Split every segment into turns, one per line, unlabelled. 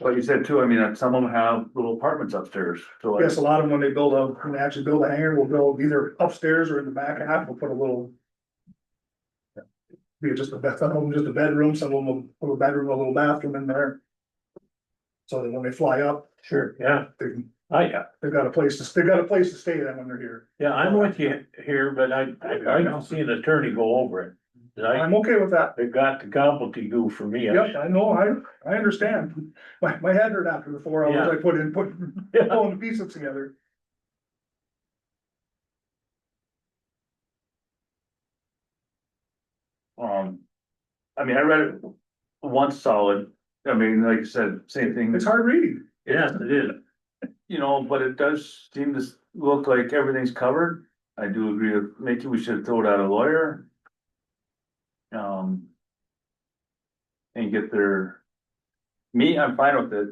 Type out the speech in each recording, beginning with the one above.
But you said too, I mean, that some of them have little apartments upstairs, so like,
Yes, a lot of them, when they build a, when they actually build a hangar, will build either upstairs or in the back half, we'll put a little. Be just a bed, some of them just a bedroom, some of them will put a bedroom, a little bathroom in there. So that when they fly up,
Sure, yeah,
they, can-
I, yeah,
they've got a place to, they've got a place to stay then when they're here.
yeah, I'm with you here, but I, I, I don't see an attorney go over it. And I,
I'm okay with that.
it got the gobbledygook for me.
Yep, I know, I, I understand. My, my head hurt after the four hours I put in, put,
Yeah,
pulling the pieces together.
um. I mean, I read it once solid, I mean, like you said, same thing,
It's hard reading.
Yes, it is.
you know, but it does seem to s- look like everything's covered. I do agree with Mickey, we should throw it out a lawyer. Um. And get their. Me, I'm fine with it.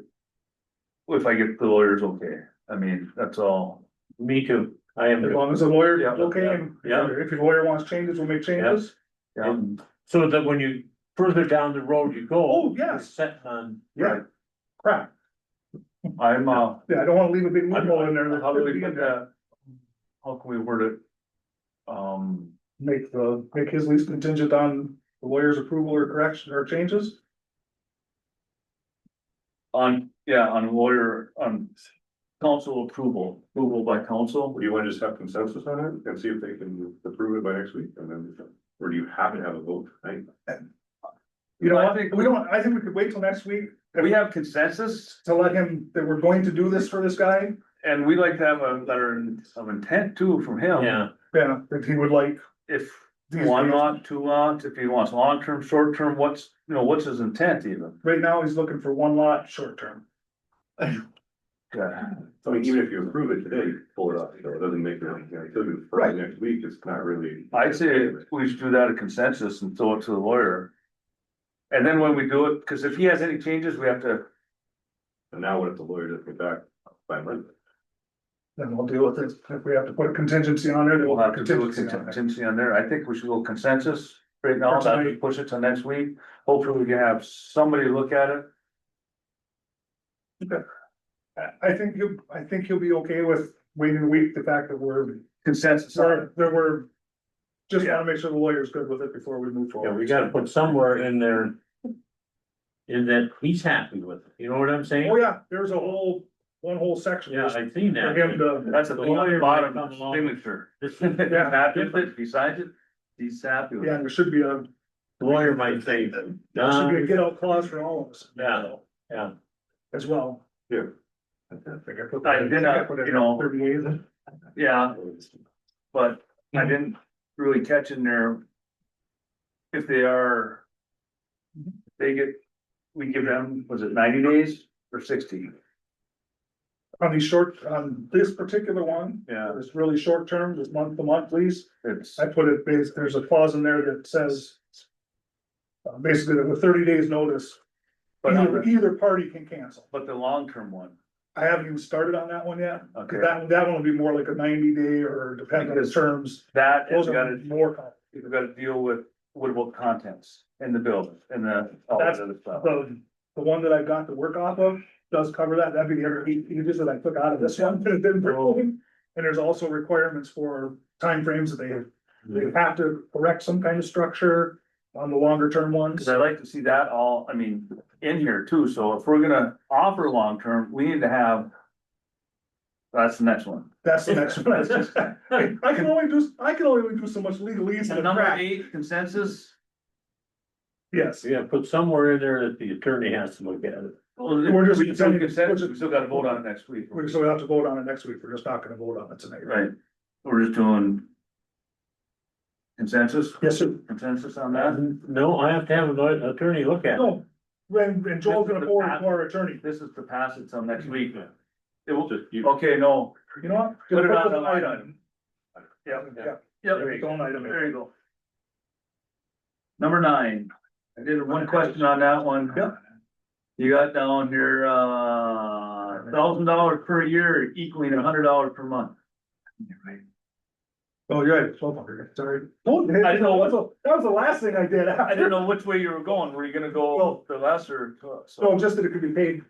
If I get the lawyers, okay, I mean, that's all.
Me too. I
As
am.
long as the lawyer,
Yeah,
okay, and
yeah.
if your lawyer wants changes, we'll make changes.
Yeah,
So that when you further down the road you go.
Oh, yes.
you're Set on,
Yeah, crap.
I'm, uh.
Yeah, I don't wanna leave a big loophole in there that
How do
could
we
be in
put
there.
that? How can we word it? Um,
Make the, make his lease contingent on the lawyer's approval or correction or changes.
on, yeah, on lawyer, on council approval, approval by council.
Do you wanna just have consensus on it and see if they can approve it by next week and then, or do you have to have a vote tonight?
You know,
I
what?
think-
we don't, I think we could wait till next week
We have consensus
to let him, that we're going to do this for this guy.
and we'd like to have a letter of intent too from him.
yeah,
Yeah, that he would like.
If one lot, two lots, if he wants long-term, short-term, what's, you know, what's his intent even?
Right now, he's looking for one lot, short term.
Yeah.
I mean, even if you approve it today, you pull it up, so it doesn't make it, you know, until you approve it next week, it's not really.
I'd say we should do that a consensus and throw it to the lawyer. And then when we do it, because if he has any changes, we have to,
And now what if the lawyer doesn't get back by Monday?
Then we'll deal with it. If we have to put a contingency on it, then
we'll
we'll
have
put
to do a
contingency on it.
contingency on there. I think we should go consensus right now,
For tonight.
that push it to next week. Hopefully we can have somebody look at it.
I, I think you, I think he'll be okay with waiting a week, the fact that we're,
Consensus. on it.
sorry, that we're. Just wanna make sure the lawyer's good with it before we move
yeah,
forward.
we gotta put somewhere in there. In that he's happy with it, you know what I'm saying?
Oh, yeah, there's a whole, one whole section.
Yeah, I seen
For him
that.
to,
That's at
The
the
lawyer might
bottom
come along.
signature.
This
If he's
Yeah.
happy with it, besides it, he's happy with
yeah,
it.
there should be a,
lawyer might say,
there should be a
Um,
"Nah,
get out clause for all of us.
Yeah, yeah.
As well.
Yeah.
I did not, you know-
Thirty-eight.
Yeah, but
Mm-hmm.
I didn't really catch in there. If they are. if They get, we give them, was it ninety days or sixty?
On these short, on this particular one,
Yeah.
it's really short term, just month to month lease,
It's,
I put it, bas- there's a clause in there that says. uh, Basically, that with thirty days notice,
but,
either,
not-
either party can cancel.
but the long-term one,
I haven't even started on that one yet,
okay,
'cause that, that one will be more like a ninety day or depending on the terms,
that
those
has
are
got to,
more. complicated.
you've got to deal with, what about contents in the building and the. all that other stuff.
The, the one that I've got to work off of does cover that, that'd be the other eight pages that I took out of this one, that it didn't bring. And there's also requirements for timeframes that they, they have to erect some kind of structure on the longer term ones.
Cause I'd like to see that all, I mean, in here too, so if we're gonna offer long-term, we need to have. That's the next one.
That's the next one. I I can only do, I can only do so much legalese
And
in a
number
crack,
eight, consensus,
yes.
Yeah, put somewhere in there that the attorney has to look at it.
well,
We're just-
we can still consensus, we still gotta vote on it next week.
We still have to vote on it next week, we're just not gonna vote on it tonight.
Right, we're just doing. Consensus,
Yes, sir.
consensus on that,
Mm-hmm.
No, I have to have an attorney look at it.
No, and, and Joel's gonna forward it to our attorney,
this is to pass it till next week.
Yeah.
It will,
Just you-
okay, no,
you know what?
put it
Just
on
the
the line item.
Yeah, yeah.
Yep.
There you go.
There you go. Number nine, I did one question on that one.
Yep.
You got down here, uh, thousand dollars per year equaling a hundred dollars per month.
Oh, you're right, twelve hundred, sorry. Don't, hit-
I didn't know what-
that was the- that was the last thing I did.
I didn't know which way you were going, were you gonna go the lesser?
No, just that it could be paid